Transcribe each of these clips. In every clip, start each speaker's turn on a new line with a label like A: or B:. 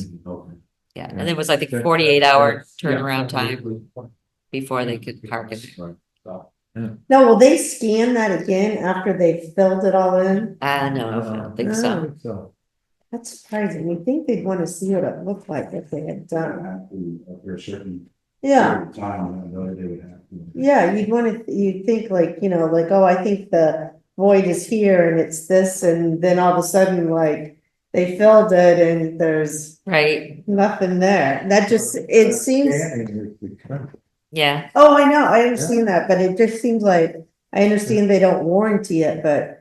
A: Mm-hmm.
B: Yeah,
A: Yeah.
B: and it was like
A: Yeah.
B: the forty-eight hour
A: Yeah.
B: turnaround time before they could park it.
A: Right. So,
C: No, will they scan that again after they've filled it all in?
B: Ah, no, I don't think so.
C: Oh, That's surprising. You think they'd wanna see what it looked like if they had
A: that would
C: done.
A: have to, after a certain
C: Yeah,
A: period of Time, I know they would have to.
C: yeah, you'd wanna, you'd think like, you know, like, oh, I think the void is here and it's this, and then all of a sudden, like. They filled it and there's
B: Right,
C: nothing there. That just, it seems,
A: Scanning is the country.
B: yeah,
C: oh, I know, I understand that, but it just seems like, I understand they don't warranty it, but.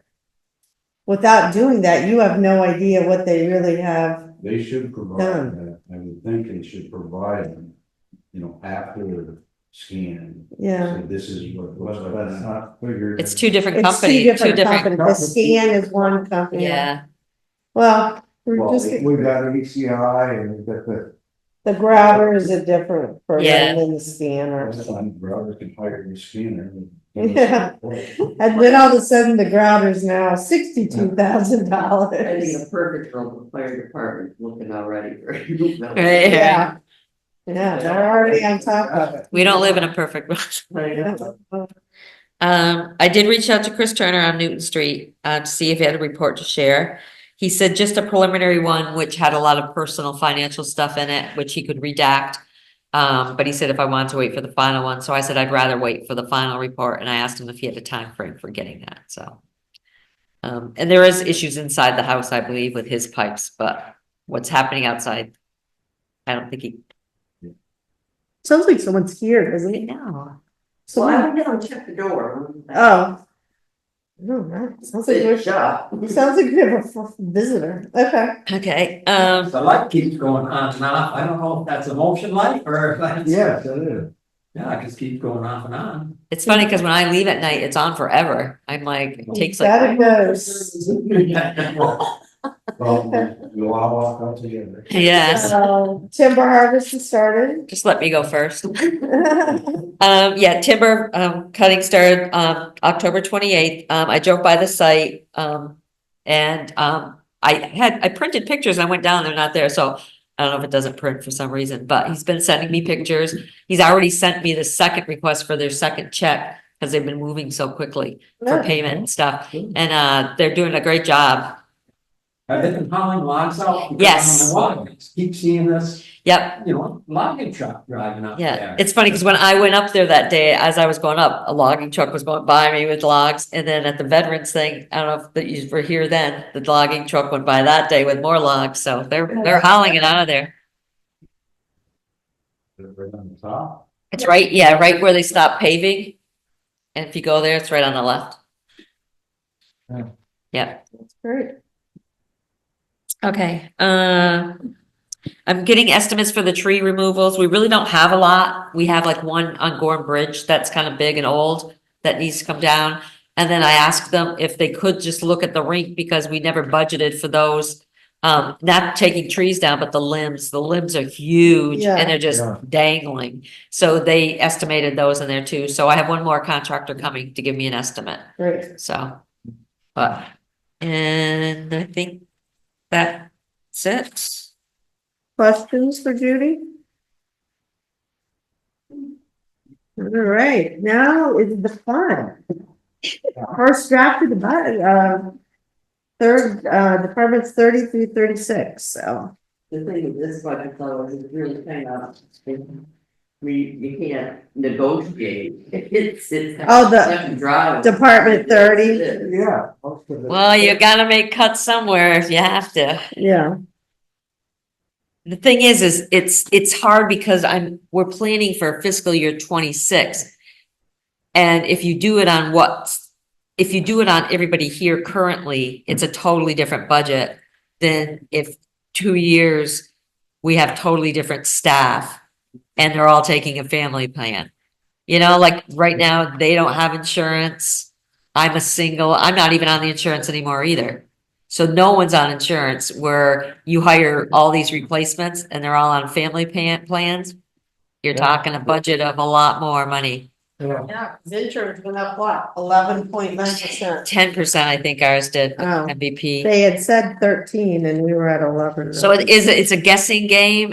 C: Without doing that, you have no idea what they really have.
A: They should provide
C: Done.
A: that, I would think they should provide, you know, after scan. So
C: Yeah,
A: this is what it was, but that's not figured.
B: it's two different
C: it's two
B: companies, two
C: different
B: different,
C: companies, the scan is one company.
B: yeah,
C: Well, we're
A: Well,
C: just,
A: we've got an ECI and we've got the.
C: the grabber is a different
B: Yeah.
C: program than the scanner.
A: Robert can hire a scanner.
C: Yeah. And then all of a sudden, the grabber's now sixty-two thousand
D: I think
C: dollars.
D: a perfect role for the fire department looking already.
B: Right.
C: Yeah, yeah, they're already on top
A: uh,
C: of it.
B: we don't live in a perfect world.
C: Yeah.
B: Um, I did reach out to Chris Turner on Newton Street, uh, to see if he had a report to share. He said just a preliminary one, which had a lot of personal financial stuff in it, which he could redact. Um, but he said if I wanted to wait for the final one, so I said I'd rather wait for the final report, and I asked him if he had a time frame for getting that, so. Um, and there is issues inside the house, I believe, with his pipes, but what's happening outside? I don't think he,
C: Sounds like someone's here, doesn't it?
B: no,
D: Well, I
C: Someone,
D: would never check the door.
C: oh. I don't know. Sounds like
D: Good
C: we're,
D: job.
C: sounds like we have a f- visitor, okay.
B: okay, um.
E: The light keeps going on and off. I don't know if that's a motion light or if that's.
A: Yes, it is.
E: Yeah, it just keeps going off and on.
B: It's funny because when I leave at night, it's on forever. I'm like, it takes like,
C: That goes.
A: Well, we we all walk out together.
B: yes,
C: So, Uh, Timber harvest has started.
B: just let me go first. Um, yeah, timber, um, cutting started, um, October twenty-eighth. Um, I drove by the site, um, and, um, I had, I printed pictures. I went down, they're not there, so I don't know if it doesn't print for some reason, but he's been sending me pictures. He's already sent me the second request for their second check because they've been moving so quickly for payment and stuff.
A: Good.
B: And, uh, they're doing a great job.
E: Have they been hauling logs out?
B: Yes.
E: Keep seeing this,
B: Yep,
E: you know, logging truck driving up
B: Yeah,
E: there.
B: it's funny because when I went up there that day, as I was going up, a logging truck was going by me with logs. And then at the veterans thing, I don't know if that you were here then, the logging truck went by that day with more logs. So they're, they're hauling it out of there.
A: Right on the top.
B: It's right, yeah, right where they stopped paving. And if you go there, it's right on the left.
A: Yeah.
B: Yeah,
C: Great.
B: okay, uh, I'm getting estimates for the tree removals. We really don't have a lot. We have like one on Gorham Bridge that's kind of big and old that needs to come down. And then I asked them if they could just look at the rink because we never budgeted for those. Um, not taking trees down, but the limbs, the limbs are huge
C: Yeah.
B: and they're just
A: Yeah.
B: dangling. So they estimated those in there too. So I have one more contractor coming to give me an estimate,
C: Great.
B: so. But, and I think that's it.
C: Questions for Judy? All right, now is the fun. First draft of the bu- uh, third, uh, departments thirty through thirty-six, so.
D: The thing with this budget though is it's really kind of, we, you can't negotiate. It's, it's. kind of
C: Oh, the-
D: cut and dry.
C: Department
D: That's
C: thirty,
D: it.
A: Yeah. most of the-
B: Well, you gotta make cuts somewhere if you have to.
C: yeah,
B: The thing is, is it's, it's hard because I'm, we're planning for fiscal year twenty-six. And if you do it on what, if you do it on everybody here currently, it's a totally different budget than if two years, we have totally different staff and they're all taking a family plan. You know, like right now, they don't have insurance. I'm a single, I'm not even on the insurance anymore either. So no one's on insurance where you hire all these replacements and they're all on family pan- plans. You're
A: Yeah.
B: talking a budget of a lot more money.
E: Yeah.
F: Yeah, the insurance went up what, eleven point nine percent?
B: ten percent, I think ours did,
C: Oh.
B: MVP.
C: They had said thirteen and we were at eleven.
B: So it is, it's a guessing game